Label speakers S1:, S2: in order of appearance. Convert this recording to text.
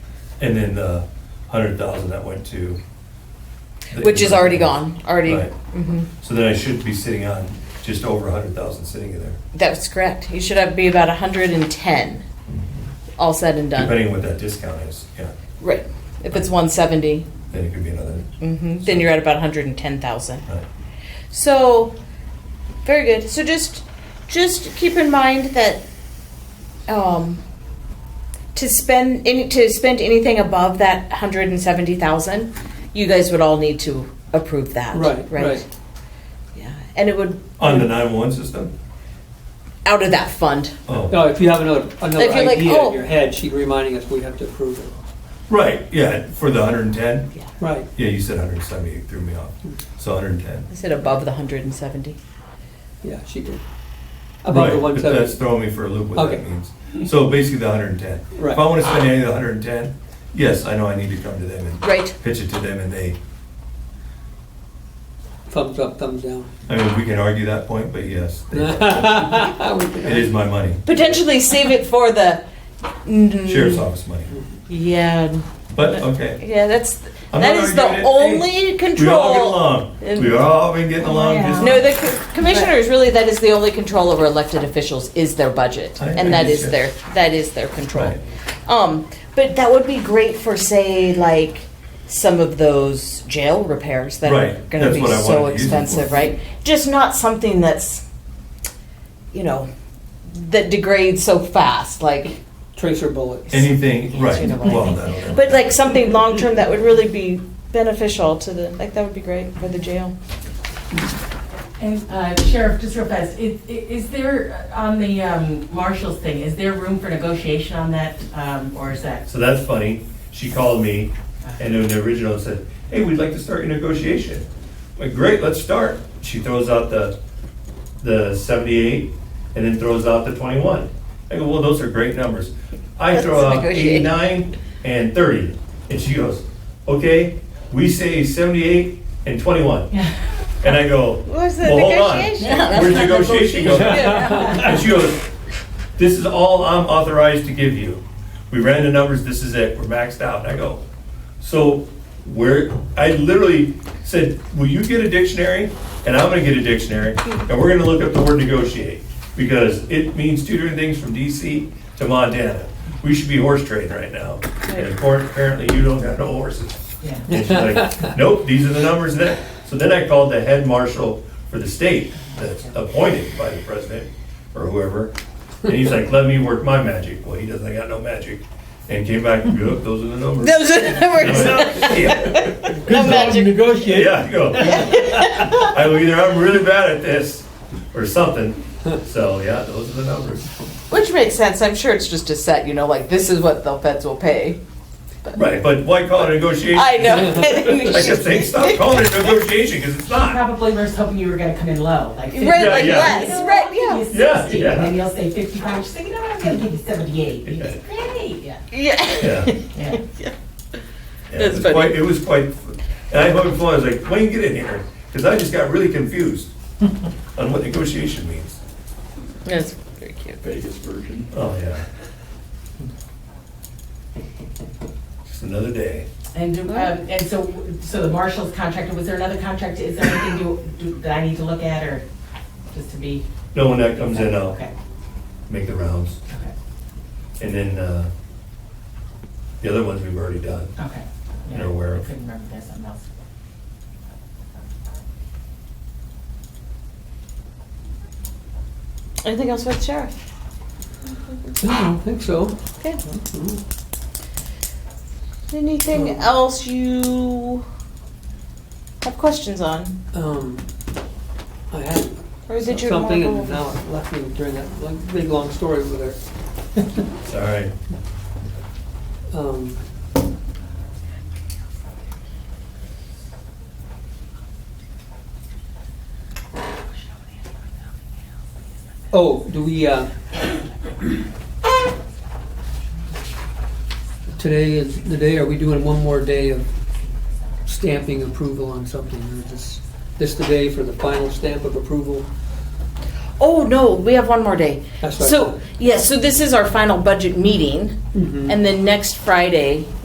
S1: And then the hundred thousand that went to. the-
S2: Which is already gone, already.
S1: Right.
S2: mhm.
S1: So then I should be sitting on just over a hundred thousand sitting in there,
S2: That's correct. You should have, be about hundred and ten, all said and done.
S1: depending on what that discount is, yeah,
S2: Right. If it's one seventy,
S1: then it could be another,
S2: mm-hmm, then you're at about hundred and ten thousand.
S1: right,
S2: So, very good. So just, just keep in mind that, um, to spend any, to spend anything above that hundred and seventy thousand, you guys would all need to approve that.
S3: Right, right.
S2: Yeah, and it would,
S1: on the nine-one system?
S2: out of that fund.
S1: Oh,
S3: No, if you have another, another
S2: If you're like,
S3: idea
S2: oh.
S3: in your head, she's reminding us we have to approve it.
S1: right, yeah, for the hundred and ten,
S3: Right.
S1: yeah, you said hundred and seventy, it threw me off, so hundred and ten.
S2: I said above the hundred and seventy.
S3: Yeah, she did. About the
S1: Right,
S3: one
S1: but That's
S3: seventy.
S1: throwing me for a loop what that
S3: Okay.
S1: means. So basically the hundred and ten.
S3: Right.
S1: If I wanna spend any of the hundred and ten, yes, I know I need to come to them and
S2: Right.
S1: pitch it to them and they,
S3: Thumbs up, thumbs down.
S1: I mean, we can argue that point, but yes.
S3: We
S1: they- It is
S3: can-
S1: my money,
S2: Potentially save it for the.
S1: sheriff's office money,
S2: Yeah,
S1: but okay.
S2: yeah, that's,
S1: I'm
S2: that
S1: not
S2: is the
S1: arguing it. We all
S2: only
S1: get
S2: control.
S1: along, we all been getting along just.
S2: No, the co- commissioners, really, that is the only control over elected officials is their budget.
S1: I- I
S2: And that
S1: guess,
S2: is their, that is their control.
S1: Right.
S2: Um, but that would be great for, say, like, some of those jail repairs that are
S1: Right,
S2: gonna
S1: that's
S2: be
S1: what I
S2: so
S1: wanted to use it for.
S2: expensive, right? Just not something that's, you know, that degrades so fast, like,
S3: Tracer bullets.
S1: Anything, right,
S2: You know what I
S1: well,
S2: mean.
S1: that'll.
S2: But like something long term that would really be beneficial to the, like, that would be great for the jail.
S4: And uh, Sheriff, just real fast, i- i- is there, uh, on the um, marshals thing, is there room for negotiation on that, um, or is that?
S1: So that's funny. She called me and in the original said, hey, we'd like to start your negotiation. I'm like, great, let's start. She throws out the, the seventy-eight and then throws out the twenty-one. I go, well, those are great numbers. I throw
S2: That's
S1: out
S2: negotiating.
S1: eighty-nine and thirty. And she goes, okay, we say seventy-eight and twenty-one. And I go,
S2: Where's the
S1: well, hold on.
S2: negotiation? Yeah, that's
S1: Where's
S2: not
S1: negotiation go? And she goes, this is all I'm authorized to give you. We ran the numbers, this is it, we're maxed out. And I go, so where, I literally said, will you get a dictionary? And I'm gonna get a dictionary, and we're gonna look up the word negotiate, because it means two different things from DC to Montana. We should be horse trading right now, and appar- apparently you don't have no horses.
S4: Yeah.
S1: And she's like, nope, these are the numbers that. So then I called the head marshal for the state that's appointed by the president or whoever. And he's like, let me work my magic. Well, he doesn't, I got no magic. And came back, yep, those are the numbers.
S2: Those are the
S1: I'm
S2: numbers.
S1: like, Yeah,
S3: Good luck
S2: Imagine-
S3: negotiating.
S1: yeah, I go. I go, either I'm really bad at this or something. So, yeah, those are the numbers.
S2: Which makes sense. I'm sure it's just a set, you know, like this is what the feds will pay.
S1: Right, but why call it a negotiation?
S2: I know.
S1: I kept saying, stop calling it a negotiation because it's not.
S4: Probably was hoping you were gonna come in low, like.
S1: like,
S2: Right,
S4: 50. You know,
S2: yes,
S4: I'll
S2: right,
S4: give you
S2: yeah.
S4: 60.
S1: Yeah, yeah.
S4: Maybe I'll say fifty-five, she's thinking, no, I'm gonna give you seventy-eight. You just, Great, yeah,
S2: Yeah.
S1: Yeah.
S4: yeah.
S1: Yeah,
S2: That's
S1: it was
S2: funny.
S1: quite, it was quite, and I hugged Flo, I was like, Wayne, get in here, because I just got really confused on what negotiation means.
S2: That's very cute.
S5: Vegas version.
S1: Oh, yeah. Just another day.
S4: And, um, and so, so the marshals contractor, was there another contract, is there anything you, do- that I need to look at, or just to be?
S1: No, when that comes in, uh, I'll
S4: Okay,
S1: make the rounds.
S4: okay,
S1: And then, uh, the other ones we've already done.
S4: okay. Yeah,
S1: You're aware of.
S4: I couldn't remember, there's something else.
S2: Anything else with sheriff?
S3: No, I don't think so. Mm-hmm.
S2: Okay. Anything else you have questions on,
S3: Um, I had
S2: or is it your?
S3: something
S2: normal-
S3: and now it left me during that like, big, long story over there.
S1: It's all right.
S3: Um, Oh, do we, uh, today is the day, are we doing one more day of stamping approval on something? Or is this, this the day for the final stamp of approval?
S2: Oh no, we have one more day.
S3: That's what I
S2: So
S3: thought.
S2: yeah, so this is our final budget meeting, and then next Friday